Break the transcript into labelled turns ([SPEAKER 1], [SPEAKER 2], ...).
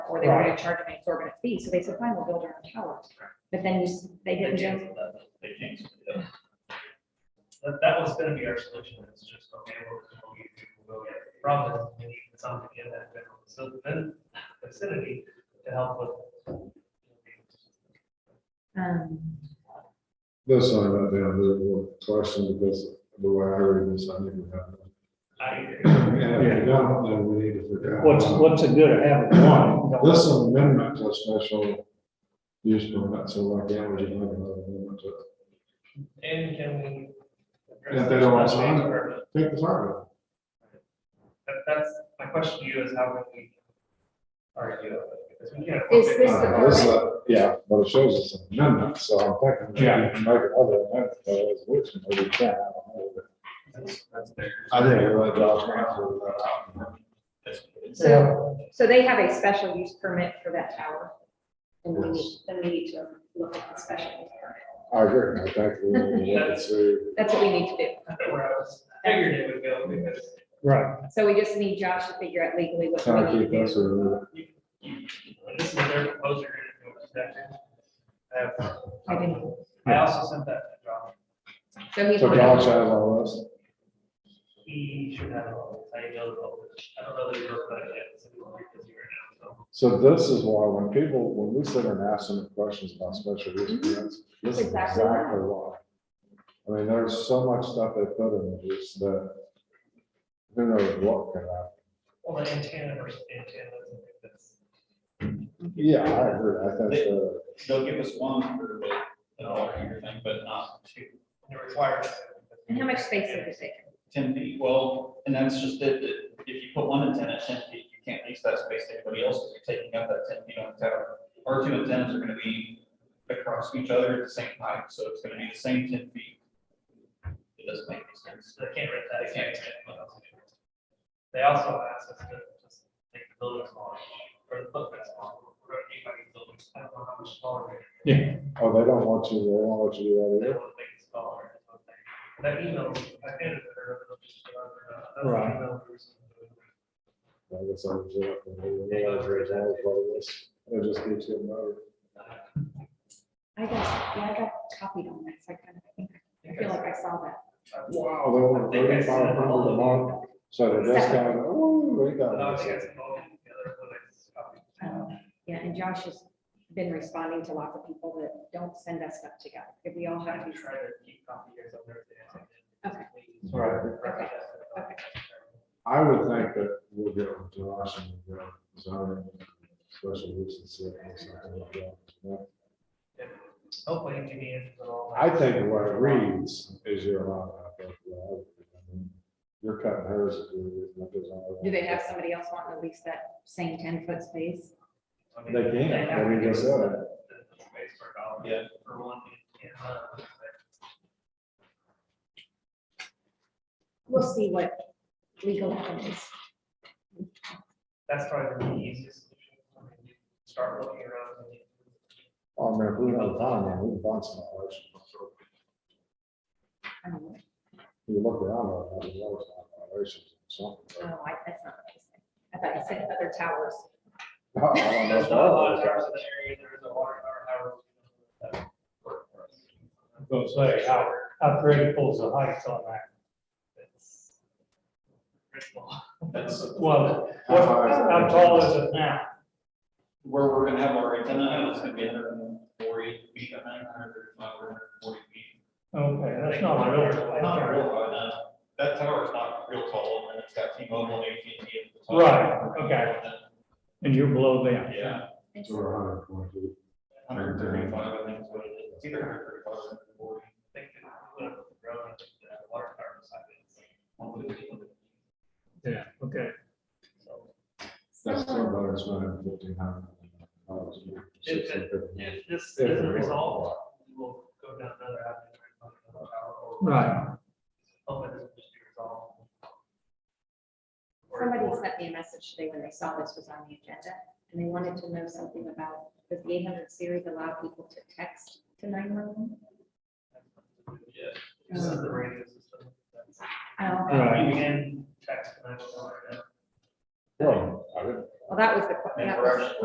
[SPEAKER 1] or they were gonna charge an exorbitant fee, so they said, fine, we'll build our own tower. But then you s- they
[SPEAKER 2] They
[SPEAKER 1] didn't do,
[SPEAKER 2] canceled that, they canceled it. That, that was gonna be our solution, it's just, okay, we'll, we'll get people, we'll get, the problem is, we need something in that general, so then, vicinity to help with.
[SPEAKER 1] um,
[SPEAKER 3] That's not that damn difficult question because the way I heard this, I didn't have.
[SPEAKER 2] I agree.
[SPEAKER 3] And if you don't, then we need to figure out.
[SPEAKER 4] What's, what's the good of having one?
[SPEAKER 3] This amendment to special use permit, so why can't we just make another amendment to it?
[SPEAKER 2] And can we?
[SPEAKER 3] If they don't want to sign it.
[SPEAKER 2] That,
[SPEAKER 3] Take the target.
[SPEAKER 2] that's, my question to you is how can we? Argue, it? because we can't.
[SPEAKER 1] Is this the-
[SPEAKER 3] Uh, this, uh, Yeah, but it shows it's an amendment, so I'm thinking.
[SPEAKER 4] Yeah.
[SPEAKER 3] Make another amendment, uh, resolution, maybe we can, I don't know.
[SPEAKER 2] That's- that's fair.
[SPEAKER 3] I think it really does answer that.
[SPEAKER 1] so, so they have a special use permit for that tower. And we need,
[SPEAKER 3] Yes.
[SPEAKER 1] then we need to look at the special use permit.
[SPEAKER 3] I agree, I think we need to see.
[SPEAKER 1] That's what we need to do.
[SPEAKER 2] That's where I was, figured it would go, because
[SPEAKER 4] Right,
[SPEAKER 1] So we just need Josh to figure out legally what
[SPEAKER 3] Kind
[SPEAKER 1] we
[SPEAKER 3] of
[SPEAKER 1] need
[SPEAKER 3] keep
[SPEAKER 1] to
[SPEAKER 3] us
[SPEAKER 1] do.
[SPEAKER 3] with
[SPEAKER 2] when this is their proposal, you're gonna go back to. I have-
[SPEAKER 1] I didn't-
[SPEAKER 2] I also sent that to John.
[SPEAKER 1] So
[SPEAKER 3] it.
[SPEAKER 1] he's.
[SPEAKER 3] So Josh has all this.
[SPEAKER 2] He should have, it all. I know, it all. I don't know that he wrote that yet, so he's pretty busy right now, so.
[SPEAKER 3] So this is why when people, when we sit and ask them questions about special use
[SPEAKER 1] Mhm.
[SPEAKER 3] permits, this is
[SPEAKER 1] Exactly.
[SPEAKER 3] exactly why. I mean, there's so much stuff they put in this that who knows what can happen.
[SPEAKER 2] Well, the antenna versus antenna, I think that's,
[SPEAKER 3] Yeah, I agree. I think, uh,
[SPEAKER 5] They'll give us one for the, the dollar and everything, but not two,
[SPEAKER 2] it requires.
[SPEAKER 1] And how much space is it taking?
[SPEAKER 5] ten feet. Well, and that's just it, that if you put one antenna at ten feet, you can't lease that space to anybody else, because you're taking up that ten feet on the tower. Our two antennas are gonna be across from each other at the same height, so it's gonna be the same ten feet. It doesn't make any sense.
[SPEAKER 2] They can't rent that.
[SPEAKER 5] They can't.
[SPEAKER 2] They also asked us to just make the building smaller, or the footprint smaller, or anybody's buildings, I don't know how much smaller.
[SPEAKER 4] Yeah.
[SPEAKER 3] oh, they don't want you, they don't want you to do that
[SPEAKER 2] They
[SPEAKER 3] either.
[SPEAKER 2] want to make it smaller. And That email, I handed her. uh, just, uh, that was
[SPEAKER 4] Right.
[SPEAKER 2] email we received.
[SPEAKER 3] I guess I'm just, it just gets you another.
[SPEAKER 1] I got, yeah, I got copied on that, so I kind of, I think, I feel like I saw that.
[SPEAKER 3] Wow, they want thirty-five hundred a month. So the discount, oh, they
[SPEAKER 2] But
[SPEAKER 3] got.
[SPEAKER 2] obviously, it's all together, but it's, uh,
[SPEAKER 1] Um, Yeah, and Josh has been responding to lots of people that don't send us stuff together. If we all
[SPEAKER 2] I
[SPEAKER 1] have
[SPEAKER 2] have
[SPEAKER 1] these.
[SPEAKER 2] to try to keep copy here, so there's.
[SPEAKER 1] Okay.
[SPEAKER 3] Right. I would think that we'll get with Josh and we'll get zoning, special use and see if there's something like that. Yeah.
[SPEAKER 2] Hopefully, engineers will all.
[SPEAKER 3] I think what it reads is you're allowed out there. yeah, I would think, I mean, You're cutting hers if you're using it as all.
[SPEAKER 1] Do they have somebody else wanting to lease that same ten foot space?
[SPEAKER 2] I mean,
[SPEAKER 3] They can,
[SPEAKER 2] have
[SPEAKER 3] I
[SPEAKER 2] to
[SPEAKER 3] mean,
[SPEAKER 2] give
[SPEAKER 3] just
[SPEAKER 2] us
[SPEAKER 3] said,
[SPEAKER 2] the- the space for a dollar,
[SPEAKER 5] Yeah.
[SPEAKER 2] For one. yeah, uh,
[SPEAKER 1] We'll see what legal happens.
[SPEAKER 2] That's probably the easiest. solution. I mean, you Start looking around. and you-
[SPEAKER 3] oh man, if we don't find them, we can find some option.
[SPEAKER 1] I don't know.
[SPEAKER 3] You look around, uh, there's always violations or something.
[SPEAKER 1] No, I, that's not what I said. I thought you said other towers.
[SPEAKER 3] I don't know.
[SPEAKER 2] There's not a lot of towers in the area, there's a water tower, however, that work for us.
[SPEAKER 4] I'm gonna say, how, how critical is the height on that?
[SPEAKER 2] It's pretty small.
[SPEAKER 5] That's
[SPEAKER 4] Well, what, how tall is it now?
[SPEAKER 5] where we're gonna have our antenna, it's gonna be hundred and forty feet, I think, hundred and thirty-five, hundred and forty feet.
[SPEAKER 4] Okay, that's not a real. height.
[SPEAKER 5] Not real high, no. That tower is not real tall, and it's got T-Mobile and AT&T. at the top.
[SPEAKER 4] Right, okay. And you're below them.
[SPEAKER 5] Yeah,
[SPEAKER 3] Or a hundred and twenty.
[SPEAKER 5] hundred thirty-five, I think is what it is, It's either hundred thirty-five or hundred forty.
[SPEAKER 2] I think that we would have grown up with that water tower beside it.
[SPEAKER 4] Yeah, okay.
[SPEAKER 2] So,
[SPEAKER 3] That's still
[SPEAKER 1] Someone-
[SPEAKER 3] better than spending fifteen hundred. dollars.
[SPEAKER 2] It- If this isn't resolved, we will go down another avenue. and find another tower, or-
[SPEAKER 4] Right.
[SPEAKER 2] Hopefully this will just be resolved. Or-
[SPEAKER 1] Somebody
[SPEAKER 2] or-
[SPEAKER 1] sent me a message today when they saw this was on the agenda and they wanted to know something about, does the eight hundred series allow people to text to nine one one?
[SPEAKER 5] Yeah.
[SPEAKER 2] This is the radio system. That's-
[SPEAKER 1] I don't know.
[SPEAKER 4] Right.
[SPEAKER 2] You can text 911 right now.
[SPEAKER 3] Well, I didn't 嗯
[SPEAKER 1] Well, that was the. que-
[SPEAKER 5] And
[SPEAKER 1] that
[SPEAKER 5] we're
[SPEAKER 1] was-
[SPEAKER 5] actually,